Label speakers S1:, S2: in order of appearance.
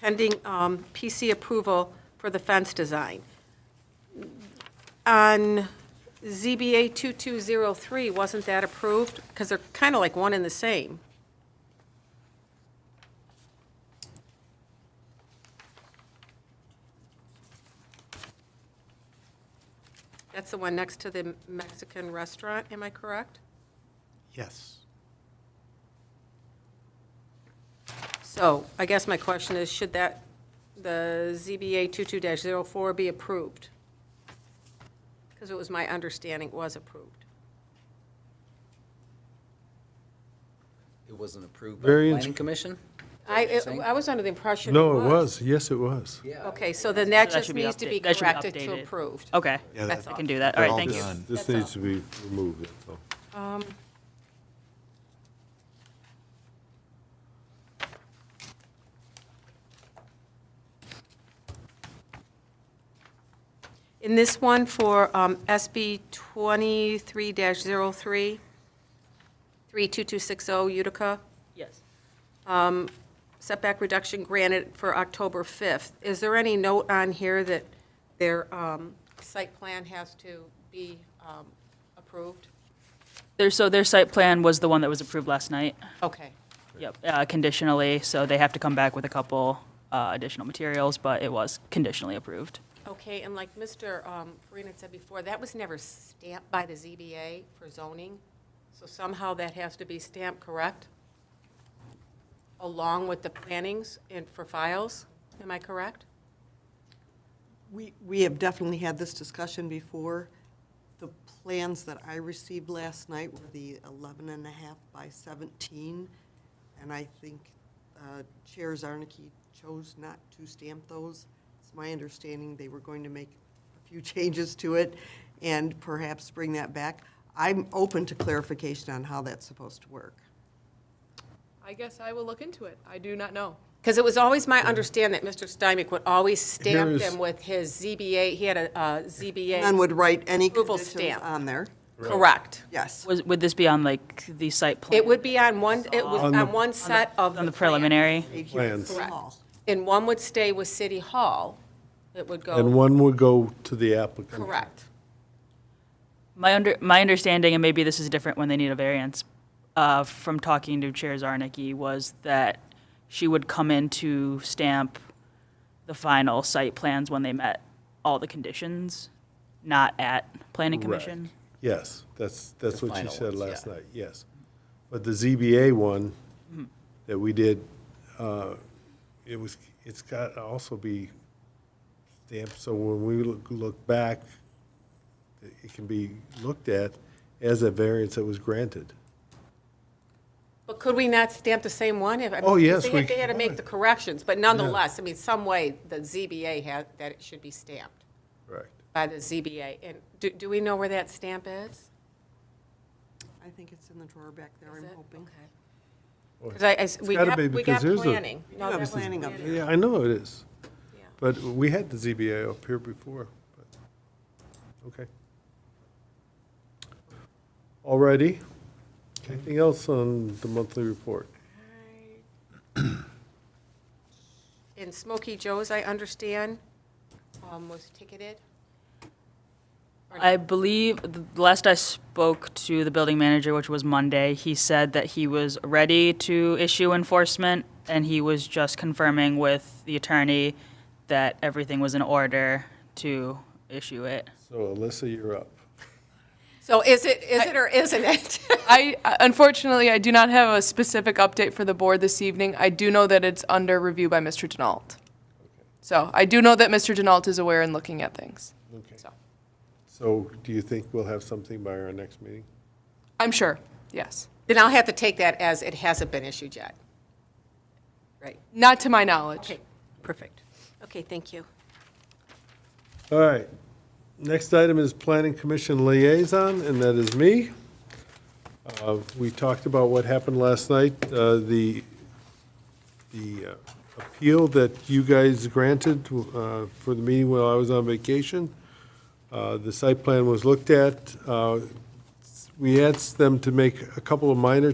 S1: pending um, PC approval for the fence design. On ZBA 2203, wasn't that approved? Because they're kind of like one and the same. That's the one next to the Mexican restaurant, am I correct?
S2: Yes.
S1: So I guess my question is, should that, the ZBA 22-04 be approved? Because it was my understanding it was approved.
S3: It wasn't approved by the
S4: Variance-
S3: planning commission?
S1: I,
S3: saying?
S1: I was under the impression it
S4: No,
S1: was.
S4: it was, yes, it was.
S3: Yeah.
S1: Okay, so then that
S5: That
S1: just
S5: should be
S1: needs to be
S5: update- that should be
S1: corrected to
S5: updated.
S1: approved.
S5: Okay,
S2: Yeah,
S1: That's
S5: I
S1: all.
S5: can do that. All right, thank you.
S2: done.
S4: This
S1: That's all.
S4: needs to be removed, that's all.
S1: In this one for um, SB 23-03, 32260 oh, Utica,
S5: Yes.
S1: setback reduction granted for October 5th. Is there any note on here that their um, site plan has to be um, approved?
S5: Their, so their site plan was the one that was approved last night.
S1: Okay.
S5: Yep, uh, conditionally, so they have to come back with a couple uh, additional materials, but it was conditionally approved.
S1: Okay, and like Mr. um, Farina said before, that was never stamped by the ZBA for zoning, so somehow that has to be stamped, correct? Along with the plannings and for files, am I correct?
S6: We, we have definitely had this discussion before. The plans that I received last night were the 11 and a half by 17, and I think uh, Chair Zarnicki chose not to stamp those. It's my understanding they were going to make a few changes to it and perhaps bring that back. I'm open to clarification on how that's supposed to work.
S7: I guess I will look into it. I do not know.
S1: Because it was always my understanding that Mr. Stymick would always stamp
S4: Here's-
S1: them with his ZBA, he had a uh, ZBA.
S6: None would write any
S1: Approval
S6: conditions
S1: stamp.
S6: on there.
S1: Correct.
S6: Yes.
S5: Was, would this be on like the site plan?
S1: It would be on one, it was
S4: On the-
S1: on one set of.
S5: On the
S1: plan.
S5: preliminary?
S4: Plans.
S6: City Hall.
S1: And one would stay with City Hall. It would go,
S4: And one would go to the applicant.
S1: correct.
S5: My under, my understanding, and maybe this is different when they need a variance, uh, from talking to Chair Zarnicki, was that she would come in to stamp the final site plans when they met all the conditions, not at planning
S4: Correct.
S5: commission.
S4: Yes, that's, that's
S3: The
S4: what she
S3: final
S4: said
S3: ones,
S4: last
S3: yeah.
S4: night, yes. But the ZBA one that we did, uh, it was, it's got to also be stamped, so when we look, look back, it it can be looked at as a variance that was granted.
S1: But could we not stamp the same one? if- I mean,
S4: Oh, yes,
S1: They
S4: we
S1: had, they had to make
S4: could.
S1: the corrections, but nonetheless, I mean, some way the ZBA had, that it should be stamped
S4: Right.
S1: by the ZBA. And do, do we know where that stamp is?
S6: I think it's in the drawer back there,
S1: Is
S6: I'm
S1: it?
S6: hoping.
S1: Okay. Because I, I s- we
S4: gotta
S1: got,
S4: be
S1: we got
S4: because there's a-
S1: planning. No,
S6: Yeah,
S1: that's-
S6: planning up there.
S4: Yeah, I know it is.
S1: Yeah.
S4: But we had the ZBA up here before, but, okay. All righty. Anything else on the monthly report?
S1: And Smokey Joe's, I understand, um, was ticketed.
S5: I believe, the last I spoke to the building manager, which was Monday, he said that he was ready to issue enforcement, and he was just confirming with the attorney that everything was in order to issue it.
S4: So Alyssa, you're up.
S1: So is it, is it or isn't it?
S7: I uh, unfortunately I do not have a specific update for the board this evening. I do know that it's under review by Mr. Denault. So I do know that Mr. Denault is aware and looking at things.
S4: Okay.
S7: So
S4: So do you think we'll have something by our next meeting?
S7: I'm sure. Yes.
S1: Then I'll have to take that as it hasn't been issued yet. Right.
S7: Not to my knowledge.
S1: Okay, perfect. Okay, thank you.
S4: All right. Next item is Planning Commission Liaison, and that is me. Uh, We talked about what happened last night, uh, the, the uh, appeal that you guys granted uh, for the meeting while I was on vacation. Uh, The site plan was looked at. Uh, We asked them to make a couple of minor